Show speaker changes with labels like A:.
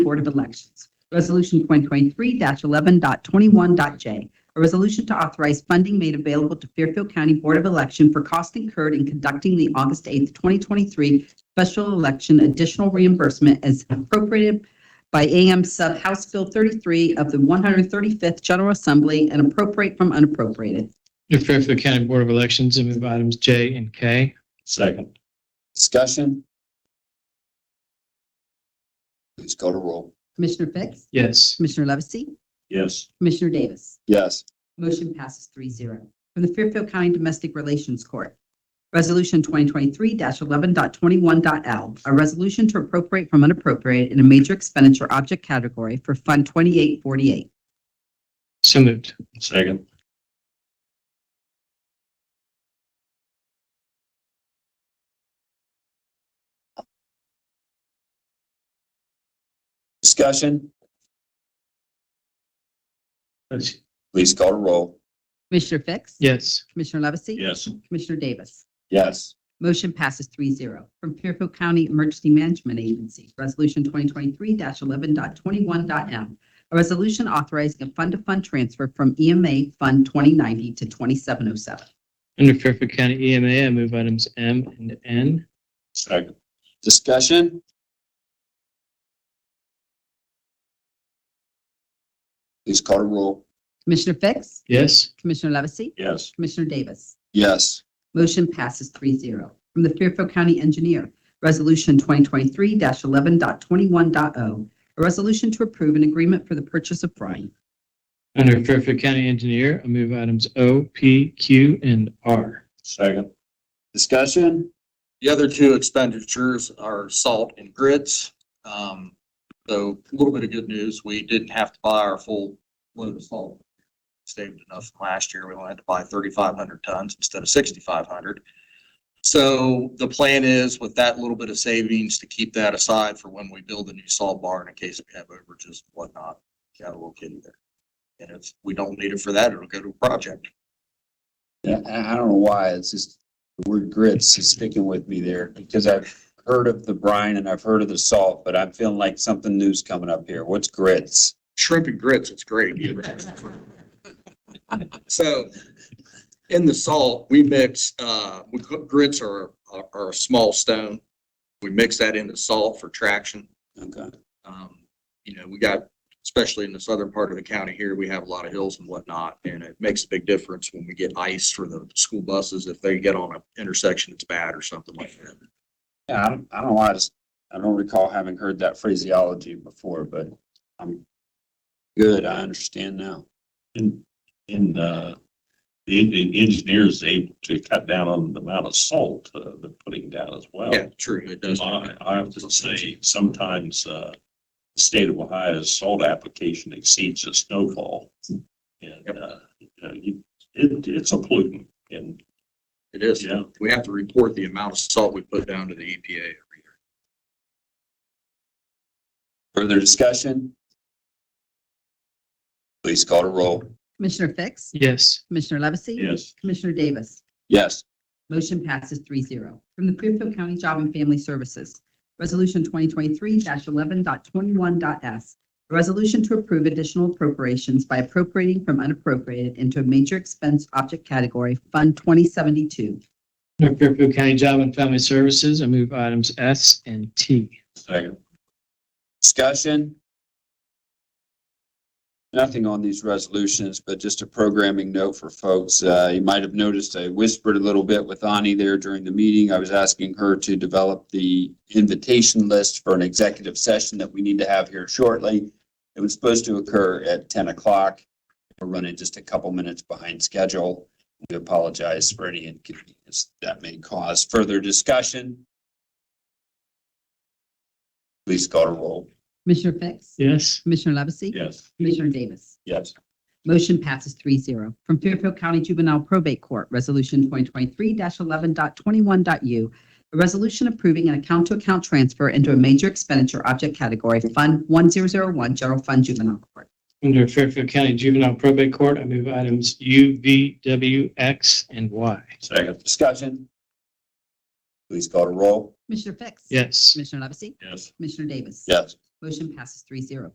A: Board of Elections. Resolution 2023-11.21.j, a resolution to authorize funding made available to Fairfield County Board of Election for costs incurred in conducting the August 8th, 2023 special election additional reimbursement as appropriated by AM Sub House Bill 33 of the 135th General Assembly and appropriate from unappropriated.
B: Under Fairfield County Board of Elections, I move items J and K.
C: Second.
D: Discussion? Please go to roll.
A: Commissioner Fix?
B: Yes.
A: Commissioner Levesey?
C: Yes.
A: Commissioner Davis?
D: Yes.
A: Motion passes three zero. From the Fairfield County Domestic Relations Court, Resolution 2023-11.21.L, a resolution to appropriate from unappropriate in a major expenditure object category for Fund 2848.
B: So moved.
C: Second.
D: Discussion? Please go to roll.
A: Commissioner Fix?
B: Yes.
A: Commissioner Levesey?
C: Yes.
A: Commissioner Davis?
D: Yes.
A: Motion passes three zero. From Fairfield County Emergency Management Agency, Resolution 2023-11.21.m. A resolution authorizing a fund-to-fund transfer from EMA Fund 2090 to 2707.
B: Under Fairfield County EMA, I move items M and N.
C: Second.
D: Discussion? Please call to roll.
A: Commissioner Fix?
B: Yes.
A: Commissioner Levesey?
C: Yes.
A: Commissioner Davis?
D: Yes.
A: Motion passes three zero. From the Fairfield County Engineer, Resolution 2023-11.21.o. A resolution to approve an agreement for the purchase of brine.
B: Under Fairfield County Engineer, I move items O, P, Q, and R.
C: Second.
D: Discussion?
E: The other two expenditures are salt and grits. Um, so a little bit of good news, we didn't have to buy our full load of salt. Saved enough from last year, we only had to buy thirty-five hundred tons instead of sixty-five hundred. So the plan is with that little bit of savings to keep that aside for when we build a new salt barn in case we have overages and whatnot. Got a little kitty there. And if we don't need it for that, it'll go to a project.
D: Yeah, I I don't know why, it's just, the word grits is sticking with me there, because I've heard of the brine and I've heard of the salt, but I'm feeling like something new's coming up here. What's grits?
E: shrimp and grits, it's great. So in the salt, we mix, uh, we cook grits are, are are a small stone. We mix that into salt for traction.
D: Okay,
E: Um, you know, we got, especially in the southern part of the county here, we have a lot of hills and whatnot, and it makes a big difference when we get ice for the school buses if they get on an intersection that's bad or something like that.
D: yeah, I don't, I don't know, I just, I don't recall having heard that phraseology before, but I'm good, I understand now.
C: And, and, uh, the en- the engineer's able to cut down on the amount of salt uh, they're putting down as well.
E: Yeah, true, it does.
C: I, I have to say, sometimes, uh, the state of Ohio's salt application exceeds the snowfall. And, uh, you know, you- it, it's a pollutant and,
E: It is.
C: yeah,
E: We have to report the amount of salt we put down to the EPA every year.
D: Further discussion? Please call to roll.
A: Commissioner Fix?
B: Yes.
A: Commissioner Levesey?
C: yes,
A: Commissioner Davis?
D: Yes,
A: Motion passes three zero. From the Fairfield County Job and Family Services, Resolution 2023-11.21.s. A resolution to approve additional appropriations by appropriating from unappropriated into a major expense object category, Fund 2072.
B: Under Fairfield County Job and Family Services, I move items S and T.
C: second,
D: discussion? Nothing on these resolutions, but just a programming note for folks. Uh, You might have noticed I whispered a little bit with Ani there during the meeting. I was asking her to develop the invitation list for an executive session that we need to have here shortly. It was supposed to occur at 10 o'clock. We're running just a couple minutes behind schedule. We apologize for any inconvenience that may cause. Further discussion? Please call to roll.
A: Commissioner Fix?
B: Yes.
A: Commissioner Levesey?
C: yes,
A: Commissioner Davis?
D: Yes.
A: Motion passes three zero. From Fairfield County Juvenile Probate Court, Resolution 2023-11.21.u, a resolution approving an account-to-account transfer into a major expenditure object category, Fund 1001, General Fund Juvenile Court.
B: Under Fairfield County Juvenile Probate Court, I move items U, V, W, X, and Y.
C: second,
D: Discussion? Please call to roll.
A: Commissioner Fix?
B: Yes.
A: Commissioner Levesey?
C: yes,
A: Commissioner Davis?
D: Yes.
A: Motion passes three zero.